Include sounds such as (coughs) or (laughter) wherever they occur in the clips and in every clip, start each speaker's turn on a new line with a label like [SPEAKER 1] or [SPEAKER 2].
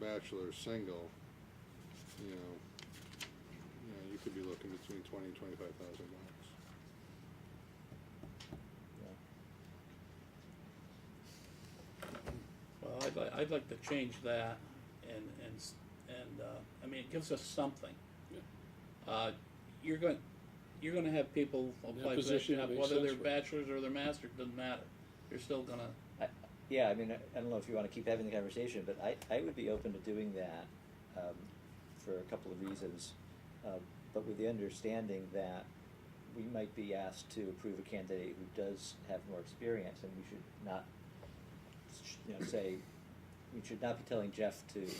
[SPEAKER 1] bachelor or single, you know, you know, you could be looking between twenty and twenty-five thousand bucks.
[SPEAKER 2] Well, I'd like, I'd like to change that and, and, s- and, uh, I mean, it gives us something. Uh, you're going, you're gonna have people apply for that
[SPEAKER 3] position
[SPEAKER 2] job,
[SPEAKER 3] makes
[SPEAKER 2] whether
[SPEAKER 3] sense
[SPEAKER 2] they're
[SPEAKER 3] for them.
[SPEAKER 2] bachelors or they're masters, doesn't matter. You're still gonna,
[SPEAKER 4] Yeah, I mean, I I don't know if you want to keep having the conversation, but I, I would be open to doing that um, for a couple of reasons. Um, but with the understanding that we might be asked to approve a candidate who does have more experience, and we should not, you know, say, we should not be telling Jeff to, you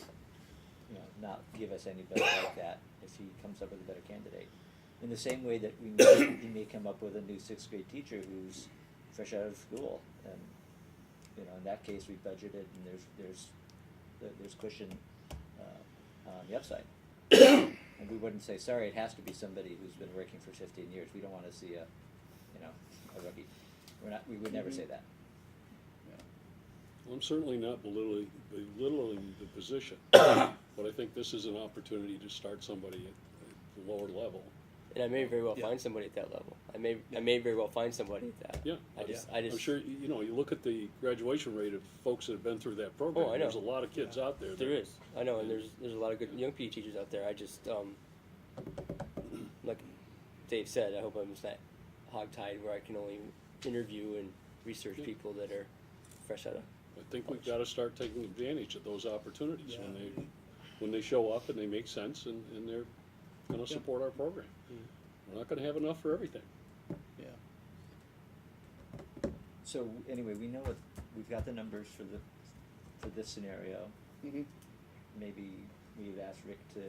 [SPEAKER 4] know, not give us anybody like that if he comes up with a better candidate. In the same way that we may, he may come up with a new sixth grade teacher who's fresh out of school and you know, in that case, we budgeted and there's, there's, there- there's cushion, uh, on the upside. (coughs) And we wouldn't say, sorry, it has to be somebody who's been working for fifteen years, we don't wanna see a, you know, a rookie. We're not, we would never say that.
[SPEAKER 3] Well, I'm certainly not belittling, belittling the
[SPEAKER 5] (coughs)
[SPEAKER 3] position, but I think this is an opportunity to start somebody at, at the lower level.
[SPEAKER 5] And I may very well
[SPEAKER 2] Yeah.
[SPEAKER 5] find somebody at that level. I may I may very well find somebody at that.
[SPEAKER 3] Oh, Yeah.
[SPEAKER 5] I just I just
[SPEAKER 3] I'm sure, you you know, you look at the graduation rate of folks that have been through that program.
[SPEAKER 5] Oh, I
[SPEAKER 3] There's a
[SPEAKER 5] know.
[SPEAKER 3] lot of kids out there.
[SPEAKER 5] there
[SPEAKER 3] that-
[SPEAKER 5] is. I know, and there's there's a lot of good young PE teachers out there. I just um like Dave said, I hope I'm just not hogtied where I can only interview and research
[SPEAKER 3] Yeah.
[SPEAKER 5] people that are fresh out of
[SPEAKER 3] I think we've gotta start taking advantage of those opportunities when
[SPEAKER 2] Yeah.
[SPEAKER 3] they, when they show up and they make sense and, and they're gonna
[SPEAKER 2] Yeah.
[SPEAKER 3] support our program. We're not gonna have enough for everything.
[SPEAKER 2] yeah,
[SPEAKER 4] So, anyway, we know what, we've got the numbers for the, for this scenario.
[SPEAKER 2] Mhm.
[SPEAKER 4] Maybe we've asked Rick to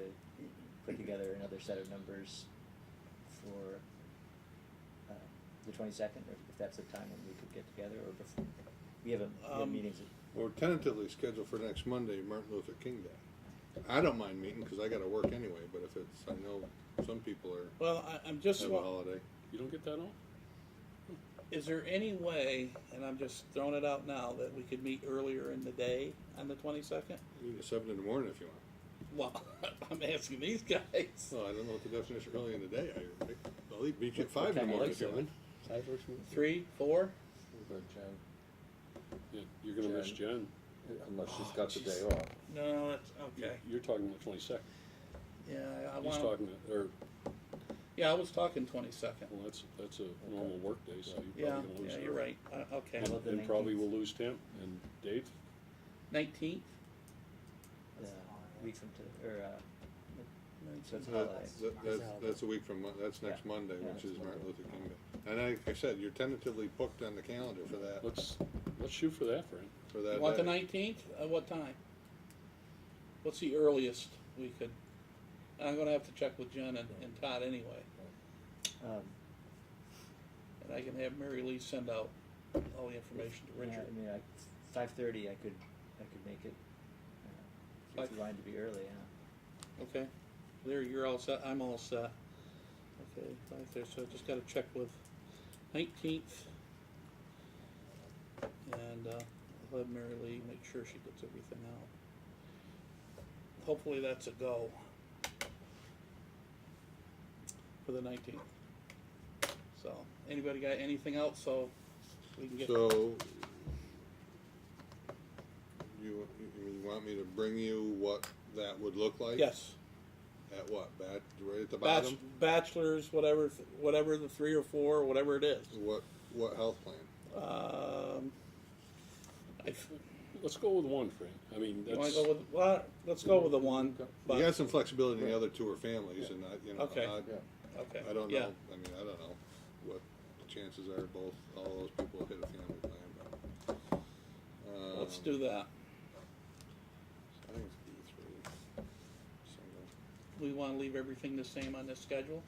[SPEAKER 4] put together another set of numbers for, uh, the twenty-second, or if that's the time when we could get together, or before, we haven't, we have
[SPEAKER 2] Um,
[SPEAKER 4] meetings at
[SPEAKER 1] Or tentatively scheduled for next Monday, Martin Luther King Day. I don't mind meeting, cause I gotta work anyway, but if it's, I know some people are,
[SPEAKER 2] well, I, I'm just,
[SPEAKER 1] have a
[SPEAKER 2] wa-
[SPEAKER 1] holiday.
[SPEAKER 3] You don't get that off?
[SPEAKER 2] is there any way, and I'm just throwing it out now, that we could meet earlier in the day on the twenty-second?
[SPEAKER 1] Meet at seven in the morning if you want.
[SPEAKER 2] Well, (laughs) I'm asking these guys.
[SPEAKER 1] Well, I don't know what the definition of early in the day, I, I'll leave beach at five in the
[SPEAKER 4] Okay, I
[SPEAKER 1] morning
[SPEAKER 4] like
[SPEAKER 1] if you want.
[SPEAKER 6] Five works for me.
[SPEAKER 2] Three, four?
[SPEAKER 6] Or Jen,
[SPEAKER 3] Yeah, You're gonna miss Jen.
[SPEAKER 6] Unless she's got the day off.
[SPEAKER 2] No, that's, okay,
[SPEAKER 3] You're talking the twenty-second.
[SPEAKER 2] yeah, I
[SPEAKER 3] He's
[SPEAKER 2] want,
[SPEAKER 3] talking, to- or,
[SPEAKER 2] yeah, I was talking twenty-second.
[SPEAKER 3] well, that's, that's a normal workday, so you're
[SPEAKER 2] Yeah,
[SPEAKER 3] probably gonna lose.
[SPEAKER 2] yeah,
[SPEAKER 3] her.
[SPEAKER 2] you're right, uh, okay.
[SPEAKER 3] And-
[SPEAKER 4] About the
[SPEAKER 3] And probably
[SPEAKER 4] 19th.
[SPEAKER 3] will lose Tim and Dave.
[SPEAKER 2] Nineteenth?
[SPEAKER 4] the week uh, from to, or, uh, so it's a
[SPEAKER 1] That-
[SPEAKER 4] holiday.
[SPEAKER 1] that- That's, that's a week from, Mon- that's next
[SPEAKER 4] Yeah.
[SPEAKER 1] Monday,
[SPEAKER 4] Yeah,
[SPEAKER 1] which is
[SPEAKER 4] that's
[SPEAKER 1] Martin
[SPEAKER 4] Monday.
[SPEAKER 1] Luther King Day. And like I said, you're tentatively booked on the calendar for that,
[SPEAKER 3] Let's, let's shoot for that, Fran.
[SPEAKER 1] for that
[SPEAKER 2] You want the
[SPEAKER 1] day.
[SPEAKER 2] nineteenth? At what time? What's the earliest we could? And I'm gonna have to check with Jen and, and Todd anyway,
[SPEAKER 4] Um,
[SPEAKER 2] and I can have Mary Lee send out all the information to
[SPEAKER 4] yeah,
[SPEAKER 2] Richard.
[SPEAKER 4] uh, I mean, I, five thirty, I could, I could make it. uh, so If
[SPEAKER 2] Five-
[SPEAKER 4] you wanted to be early, huh?
[SPEAKER 2] Okay, there, you're all set, I'm all set. Okay, right there, so I just gotta check with nineteenth. And, uh, I'll have Mary Lee make sure she gets everything out. Hopefully that's a go. For the nineteenth. So, anybody got anything else, so we can get,
[SPEAKER 1] So, you, you want me to bring you what that would look like?
[SPEAKER 2] yes,
[SPEAKER 1] At what, bat, right at the
[SPEAKER 2] bach-
[SPEAKER 1] bottom?
[SPEAKER 2] bachelors, whatever, whatever the three or four, whatever it is.
[SPEAKER 1] What, what health plan?
[SPEAKER 2] Um, I, f-
[SPEAKER 3] Let's go with one, Fran. I mean,
[SPEAKER 2] you wanna
[SPEAKER 3] that's,
[SPEAKER 2] go with, well, let's go with the one,
[SPEAKER 1] You got
[SPEAKER 2] but,
[SPEAKER 1] some flexibility in the other two are families and I, you know,
[SPEAKER 2] Okay.
[SPEAKER 1] I,
[SPEAKER 6] Yeah.
[SPEAKER 2] okay,
[SPEAKER 1] I don't
[SPEAKER 2] yeah,
[SPEAKER 1] know, I mean, I don't know what the chances are both, all those people hit a family plan, but. um,
[SPEAKER 2] let's do that.
[SPEAKER 1] I think it's D three. Single.
[SPEAKER 2] We wanna leave everything the same on this schedule?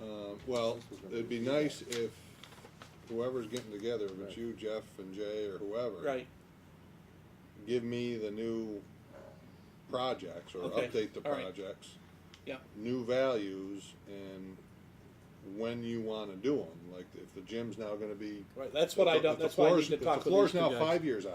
[SPEAKER 1] Um, well, it'd be nice if whoever's getting together, if it's you, Jeff and Jay or whoever.
[SPEAKER 2] Right,
[SPEAKER 1] Give me the new projects or
[SPEAKER 2] Okay,
[SPEAKER 1] update the
[SPEAKER 2] all right.
[SPEAKER 1] projects.
[SPEAKER 2] Yeah.
[SPEAKER 1] New values and when you wanna do them, like if the gym's now gonna be.
[SPEAKER 2] right, that's what I
[SPEAKER 1] if the-
[SPEAKER 2] don't,
[SPEAKER 1] if the
[SPEAKER 2] that's why I need
[SPEAKER 1] floor's-
[SPEAKER 2] to
[SPEAKER 1] if
[SPEAKER 2] talk with these two
[SPEAKER 1] The floor's
[SPEAKER 2] guys.
[SPEAKER 1] now five years out.